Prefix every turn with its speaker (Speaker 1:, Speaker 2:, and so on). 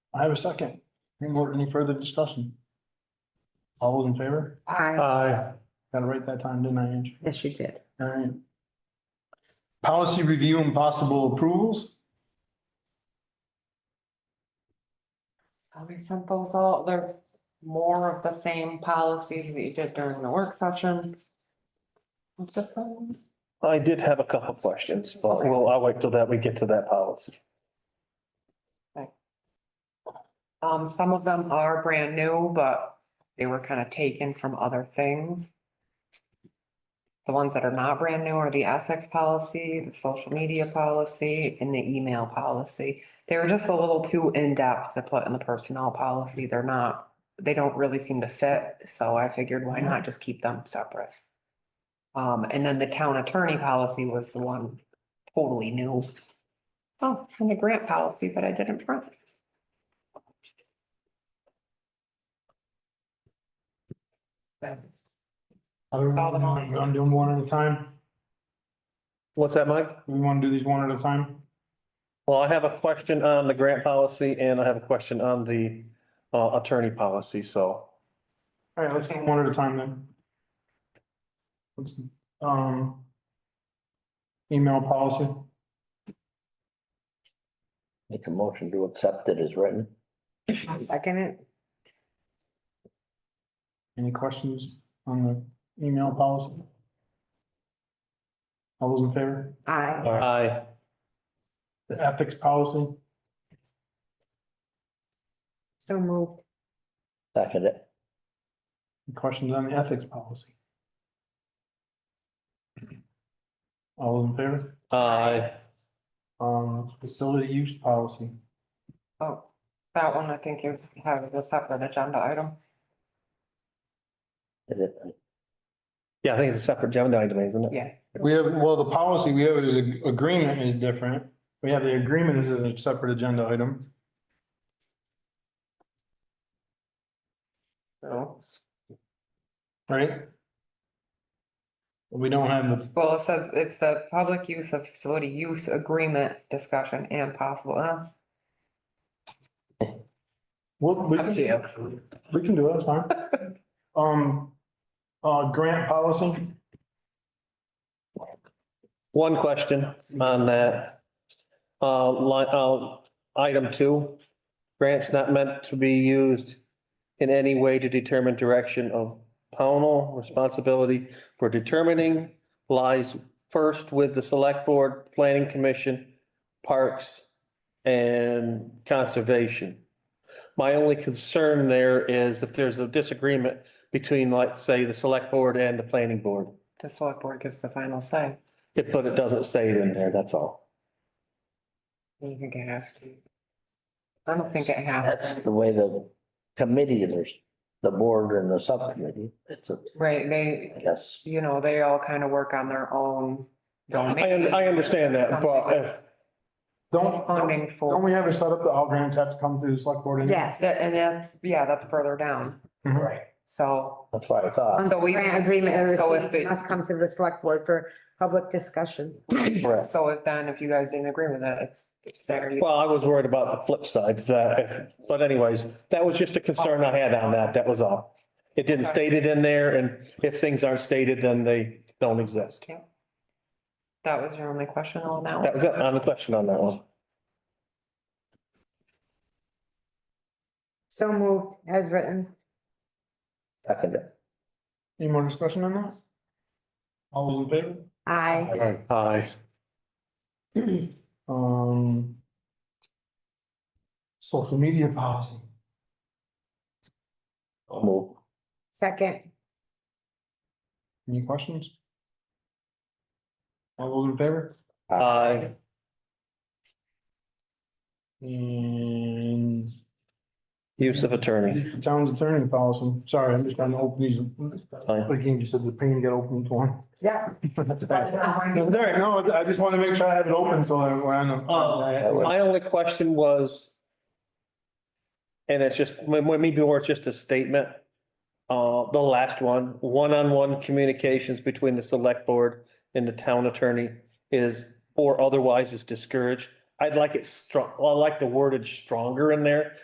Speaker 1: I have a second. Any more, any further discussion? All those in favor?
Speaker 2: Uh,
Speaker 3: I,
Speaker 4: Aye.
Speaker 1: Got it right that time, didn't I, Angie?
Speaker 3: yes, you did.
Speaker 1: All right. Policy review and possible approvals?
Speaker 2: So we sent those out, they're more of the same policies that you did during the work session. um, What's this one?
Speaker 4: I did have a couple of questions, but well, I'll wait till that, we get to that policy.
Speaker 2: Um, some of them are brand new, but they were kind of taken from other things. The ones that are not brand new are the ethics policy, the social media policy, and the email policy. They were just a little too in-depth to put in the personnel policy. They're not, they don't really seem to fit, so I figured why not just keep them separate? Um, and then the town attorney policy was the one totally new. Oh, and the grant policy, but I didn't print. Saw them all.
Speaker 1: I'm I'm doing one at a time.
Speaker 4: What's that, Mike?
Speaker 1: We want to do these one at a time?
Speaker 4: Well, I have a question on the grant policy and I have a question on the uh, attorney policy, so.
Speaker 1: All right, let's do one at a time then. Let's, um, email policy.
Speaker 5: Make a motion to accept it as written.
Speaker 3: Second it,
Speaker 1: Any questions on the email policy? All those in favor?
Speaker 3: I,
Speaker 4: Aye.
Speaker 1: The ethics policy?
Speaker 3: so moved.
Speaker 5: Second it.
Speaker 1: Any Questions on the ethics policy? All those in favor?
Speaker 4: Aye.
Speaker 1: Um, facility use policy.
Speaker 2: Oh, that one, I think you have as a separate agenda item.
Speaker 5: Did it.
Speaker 4: Yeah, I think it's a separate agenda item, isn't it?
Speaker 2: Yeah.
Speaker 1: We have, well, the policy we have is a- agreement is different. We have the agreement as a separate agenda item.
Speaker 2: So,
Speaker 1: Right? We don't have the,
Speaker 2: well, it says it's the public use of facility use agreement discussion and possible, uh,
Speaker 1: well, we
Speaker 2: Up to
Speaker 1: can, we can do it, it's fine. Um, uh, grant policy,
Speaker 4: One question on that. Uh, line, uh, item two, grants not meant to be used in any way to determine direction of pownal responsibility for determining lies first with the select board, planning commission, parks, and conservation. My only concern there is if there's a disagreement between, like, say, the select board and the planning board.
Speaker 2: the select board gets the final say.
Speaker 4: It, but it doesn't say it in there, that's all.
Speaker 2: You think it has to? I don't think it
Speaker 5: That's
Speaker 2: has. to.
Speaker 5: the way the committee, there's the board and the subcommittee. It's a,
Speaker 2: Right,
Speaker 5: I
Speaker 2: they,
Speaker 5: guess.
Speaker 2: you know, they all kind of work on their own
Speaker 4: I,
Speaker 2: domain.
Speaker 4: un- I understand that, but if,
Speaker 1: don't, don't
Speaker 2: Funding
Speaker 1: don't
Speaker 2: for,
Speaker 1: we have it set up that all grants have to come through the select board? anyway?
Speaker 3: Yes,
Speaker 2: That- and that's, yeah, that's further down,
Speaker 1: Mhm.
Speaker 5: Right.
Speaker 2: so,
Speaker 5: That's what I thought.
Speaker 2: uh, So
Speaker 3: so
Speaker 2: we-
Speaker 3: we grant agreement and
Speaker 2: so if
Speaker 3: receipt
Speaker 2: it-
Speaker 3: must come to the select board for public discussion.
Speaker 4: correct.
Speaker 2: so if then if you guys didn't agree with it, it's, it's there.
Speaker 4: Well, I was worried about the flip side, that, if- but anyways, that was just a concern I had on that, that was all. It didn't state it in there, and if things aren't stated, then they don't exist.
Speaker 2: That was your only question on that one?
Speaker 4: That was it, on the question on that one.
Speaker 3: So moved as written.
Speaker 5: Second it.
Speaker 1: Any more discussion on that? All those in favor?
Speaker 3: I,
Speaker 4: Aye.
Speaker 1: Um. Social media policy.
Speaker 5: Move.
Speaker 3: second,
Speaker 1: Any questions? All those in favor?
Speaker 4: Aye.
Speaker 1: And
Speaker 4: Use of attorney.
Speaker 1: this is town's attorney policy. Sorry, I'm just trying to open these.
Speaker 4: fine.
Speaker 1: Like you just said, the pain got open to one.
Speaker 3: yeah.
Speaker 1: That's bad. No, it's all right. No, I just want to make sure I have it open so that we're on the.
Speaker 4: Oh, My only question was, and it's just, m- m- maybe more it's just a statement. Uh, the last one, one-on-one communications between the select board and the town attorney is, or otherwise is discouraged. I'd like it strong, I like the wordage stronger in there